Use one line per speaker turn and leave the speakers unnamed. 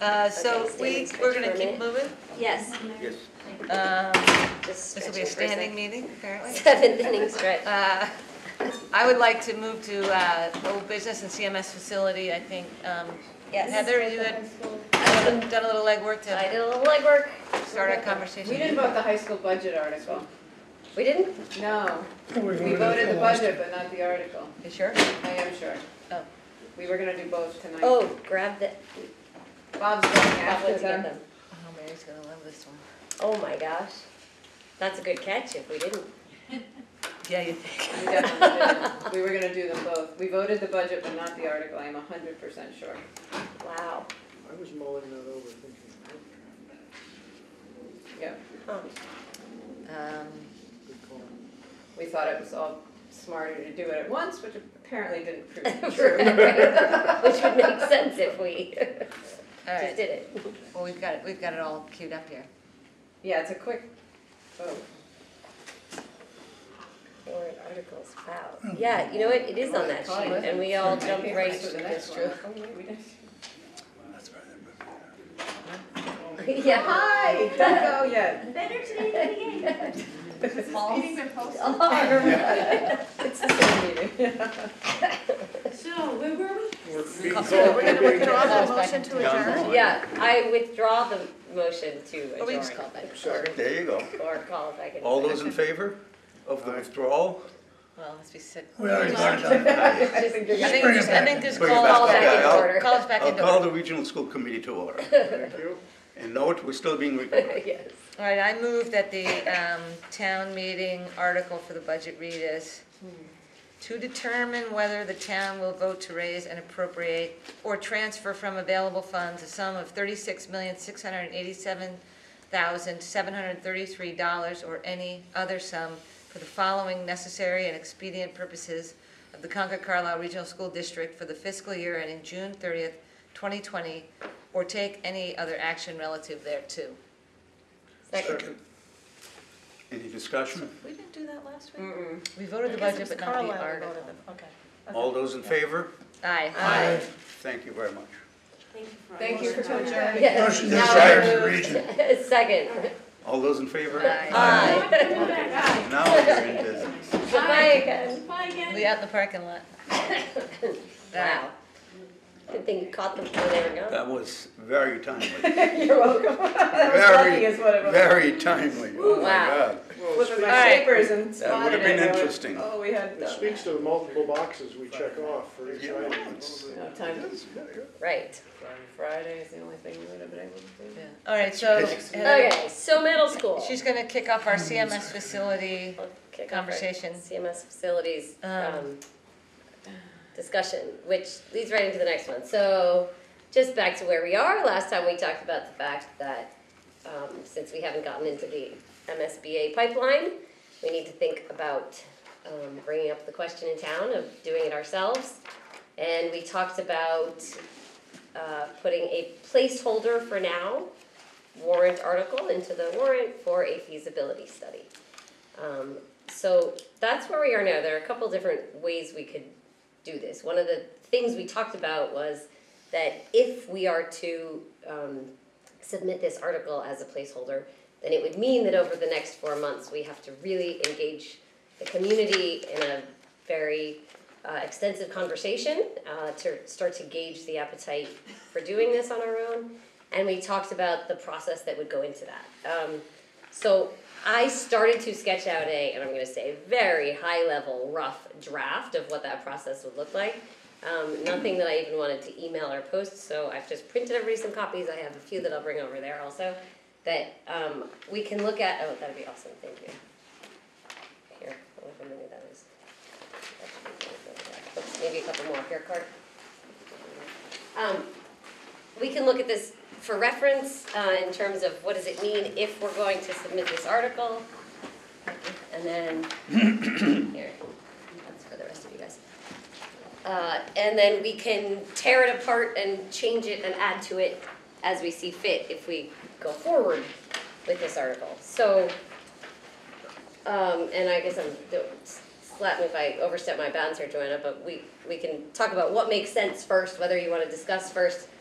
Uh, So
Okay, stand
we,
and stretch
we're
for
gonna
a
keep
minute.
moving.
Yes,
Yes.
Um,
just
This will be a
stretching for
standing
second.
meeting, apparently.
Seventh inning stretch.
Uh, I would like to move to uh, old business and CMS facility, I think. um,
Yes.
Heather, you had done a- done a little legwork
I
to
did a little legwork.
start our
We
conversation.
didn't vote the high school budget article.
We didn't?
No,
We
we voted the budget, but not the article.
You sure?
I am sure.
Oh.
We were gonna do both tonight.
Oh, grab the,
Bob's going
probably
after
to get them.
them.
Oh, Mary's gonna love this one.
Oh my gosh. That's a good catch if we didn't.
Yeah, you
We definitely did. We were gonna do them both. We voted the budget, but not the article. I am hundred percent sure.
Wow.
I was mulling that over, thinking, "Oh,
Yep.
Oh,
Um,
good call.
We thought it was all smarter to do it at once, which apparently didn't prove true.
Which would make sense if we
All
just
right,
did it.
well, we've got, it. we've got it all queued up here.
Yeah, it's a quick vote.
Warrant articles, wow. Yeah, you know what, it is on that sheet and we all jumped right
to the
to
next
this
one.
room.
Oh, yeah, we did.
Yeah.
Hi, don't go yet.
Better today than again. Meetings are posted.
It's the same meeting.
So, where were we?
We're
We're
being called-
gonna
we're being
withdraw
called.
the motion to
Done.
Yeah, I withdraw the motion to
Or we
adjourn.
just call back.
Sorry.
There you go.
Or call if I can.
All those in favor of the withdrawal?
Well, let's be sick.
We already voted on it.
Aye.
I think
I
you're.
think
Bring it
just, I
back.
think just
Bring it
call,
back.
call
Okay,
back in
I'll-
order, call us back
I'll
in
call
order.
the regional school committee to order.
Thank you.
And note, we're still being recorded.
Yes.
All right, I move that the um, town meeting article for the budget read is to determine whether the town will vote to raise and appropriate or transfer from available funds a sum of thirty-six million, six hundred and eighty-seven thousand, seven hundred and thirty-three dollars or any other sum for the following necessary and expedient purposes of the Concord Carlisle Regional School District for the fiscal year ending June thirtieth, twenty twenty, or take any other action relative thereto.
Second.
Any discussion?
We didn't do that last week?
Mm-mm.
We voted the budget, but not the article.
okay.
All those in favor?
Aye.
Aye.
Thank you very much.
Thank you for.
Thank you for coming.
Yes.
Motion to
Now
retire to
moved.
the region.
Second.
All those in favor?
Aye.
Now we're in business.
Goodbye again.
Bye again.
We out in the parking lot.
Wow. Good thing you caught them before they were gone.
That was very timely.
You're welcome. That was lucky
Very,
is what it was.
very timely. Oh, my
Wow.
God.
Flipping my
All right.
papers and
That would
spotted
have
it.
been
I went,
interesting.
Oh, we had,
It
uh,
speaks to the multiple boxes we check off for each
Yeah,
item.
it's-
no time.
Right.
Friday is the only thing we would have been able to do.
All right, so Heather,
Okay, so middle school.
she's gonna kick off our CMS facility.
We'll kick off our
Conversation.
CMS facilities
Um,
um, discussion, which leads right into the next one. So just back to where we are, last time we talked about the fact that um, since we haven't gotten into the MSBA pipeline, we need to think about um, bringing up the question in town of doing it ourselves. And we talked about uh, putting a placeholder for now warrant article into the warrant for a feasibility study. Um, so that's where we are now. There are a couple different ways we could do this. One of the things we talked about was that if we are to um, submit this article as a placeholder, then it would mean that over the next four months, we have to really engage the community in a very uh, extensive conversation uh, to start to gauge the appetite for doing this on our own. And we talked about the process that would go into that. Um, so I started to sketch out a, and I'm going to say, very high level, rough draft of what that process would look like. Um, nothing that I even wanted to email or post, so I've just printed everybody some copies. I have a few that I'll bring over there also that um, we can look at. Oh, that'd be awesome. Thank you. Here, however many that is. Oops, Maybe a couple more. Here, card. Um, we can look at this for reference uh, in terms of what does it mean if we're going to submit this article? And then, here, that's for the rest of you guys. Uh, And then we can tear it apart and change it and add to it as we see fit if we go forward with this article. So, um, and I guess I'm, don't slap me if I overstep my bounds here, Joanna, but we, we can talk about what makes sense first, whether you wanna discuss first